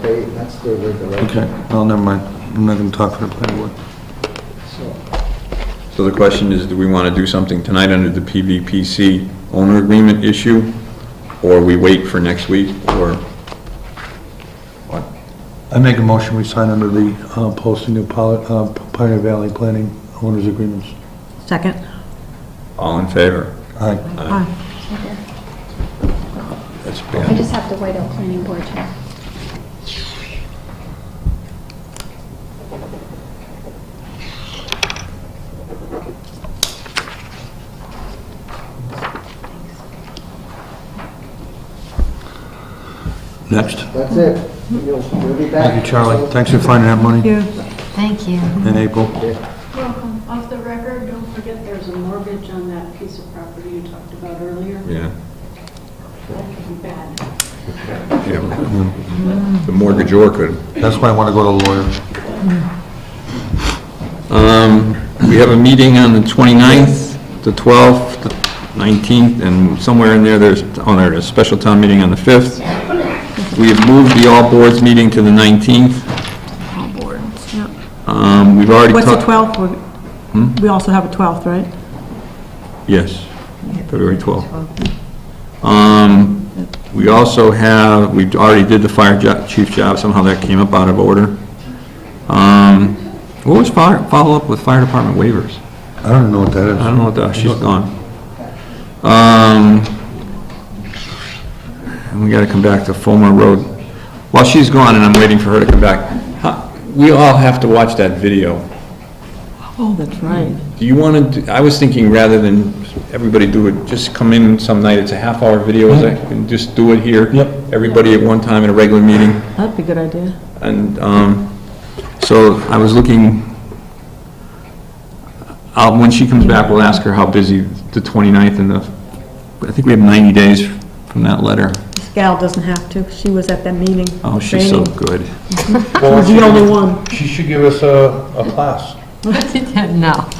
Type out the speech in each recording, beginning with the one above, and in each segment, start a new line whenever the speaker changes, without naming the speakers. they, that's their regulation.
Okay, well, never mind. I'm not going to talk for the planning board.
So,
So the question is, do we want to do something tonight under the PVPC owner agreement issue? Or we wait for next week, or what?
I make a motion, we sign under the uh, posting of Poli- uh, Pioneer Valley Planning Owners Agreements.
Second?
All in favor?
Aye.
Aye.
That's
I
bad.
just have to wait out planning board too.
Next.
that's it. You'll, you'll be back.
Thank you, Charlie. Thanks for finding that money
You?
Thank you.
in April.
Welcome. Off the record, don't forget there's a mortgage on that piece of property you talked about earlier.
Yeah.
That could be bad.
Yeah. The mortgagor could.
That's why I want to go to the lawyer.
Um, We have a meeting on the 29th, the 12th, the 19th, and somewhere in there, there's, oh, there it is, special town meeting on the 5th. We have moved the all boards meeting to the 19th.
All boards, yep.
Um, We've already
What's
talked...
the 12th?
Hmm?
We- We also have a 12th, right?
Yes, February 12th. Um, We also have, we already did the fire jo- chief job, somehow that came up out of order. Um, What was fire- follow-up with fire department waivers?
I don't even know what that is.
I don't know what the, she's gone. Um, and we gotta come back to Fulmer Road. While she's gone and I'm waiting for her to come back, huh, we all have to watch that video.
Oh, that's right.
Do you wanna, do- I was thinking rather than everybody do it, just come in some night, it's a half hour video, is that- and just do it here.
Yep.
Everybody at one time in a regular meeting.
That'd be a good idea.
And um, so I was looking, uh, when she comes back, we'll ask her how busy the 29th and the, I think we have 90 days from that letter.
This gal doesn't have to, she was at that meeting.
Oh, she's so
training.
good.
She's the only one.
She should give us a, a class.
No.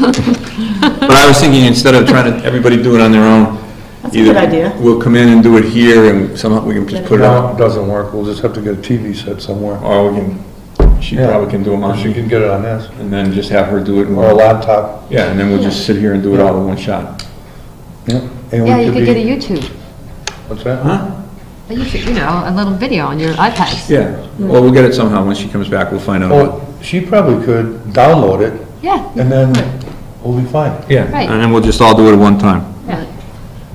But I was thinking, instead of trying to, everybody do it on their own.
That's a good
either
idea.
We'll come in and do it here and somehow we can just put it
No,
up.
it doesn't work, we'll just have to get a TV set somewhere.
Or we can, she
Yeah.
probably can do them
Or
on,
she
and
can get it on this,
then just have her do it. and
or a
we'll-
laptop.
Yeah, and then we'll just sit here and do it all in one shot.
and we
Yeah, you could get a
be-
YouTube,
What's that?
a YouTube, you know, a little video on your iPads.
Yeah, well, we'll get it somehow. When she comes back, we'll find out.
Oh, she probably could download it,
Yeah,
and then we'll be fine.
Yeah,
Right.
and then we'll just all do it at one time.
Yeah.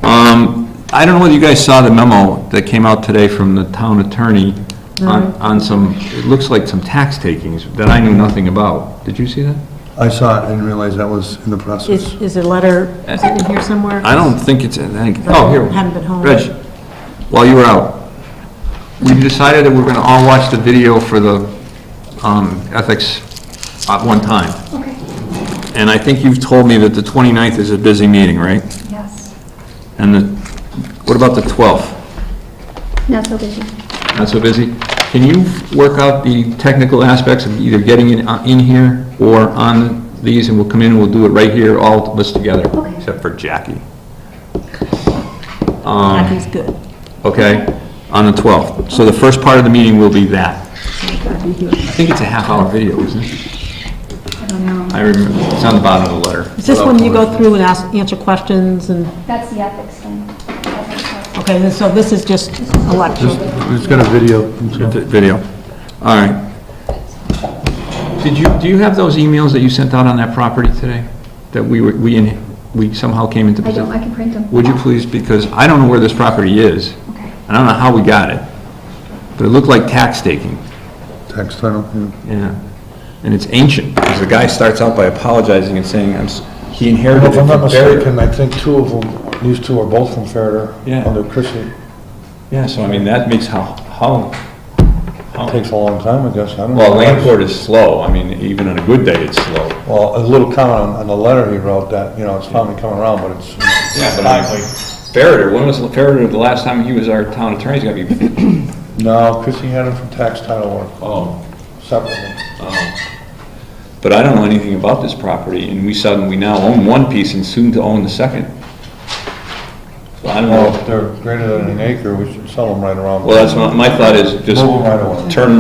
Um, I don't know whether you guys saw the memo that came out today from the town attorney on, on some, it looks like some tax takings that I knew nothing about. Did you see that?
I saw it, I didn't realize that was in the process.
Is, is a letter in here somewhere?
I don't think it's, I think, oh, here.
Haven't been home.
Reg, while you were out, we decided that we're gonna all watch the video for the, um, ethics at one time.
Okay.
And I think you've told me that the 29th is a busy meeting, right?
Yes.
And the, what about the 12th?
Not so busy.
Not so busy? Can you work out the technical aspects of either getting it on- in here or on these, and we'll come in and we'll do it right here, all of us together,
Okay.
except for Jackie,
Mackey's good.
okay? On the 12th. So the first part of the meeting will be that. I think it's a half-hour video, isn't it? I don't know. I remember, it's on the bottom of the letter.
Is this when you go through and ask, answer questions and,
That's the ethics thing. Ethics.
okay, then so this is just election.
It's got a video.
Vi- Video. All right. Did you, do you have those emails that you sent out on that property today? That we were, we, in- we somehow came into
I
possession?
don't, I can print them.
Would you please, because I don't know where this property is.
Okay.
I don't know how we got it, but it looked like tax taking.
Text, I don't, yeah.
Yeah. And it's ancient, because the guy starts out by apologizing and saying, I'm, s- he inherited it
If I'm
from
not
Barry.
mistaken, I think two of them, these two are both from Ferreter,
Yeah.
under Chrissy.
Yeah, so I mean, that makes how, how,
Takes a long time, I guess, I don't know.
well, land court is slow. I mean, even on a good day, it's slow.
Well, a little comment on, on the letter he wrote, that, you know, it's finally coming around, but it's, you know,
Yeah, but I, like, Farrader, when was Farrader, the last time he was our town attorney's gotta be,
No, Chrissy had him from tax title work,
oh.
separately.
But I don't know anything about this property, and we suddenly, we now own one piece and soon to own the second. So I don't
Well,
know,
if they're greater than an acre, we should sell them right around.
well, that's what, my thought is just
Move 'em right away.
turn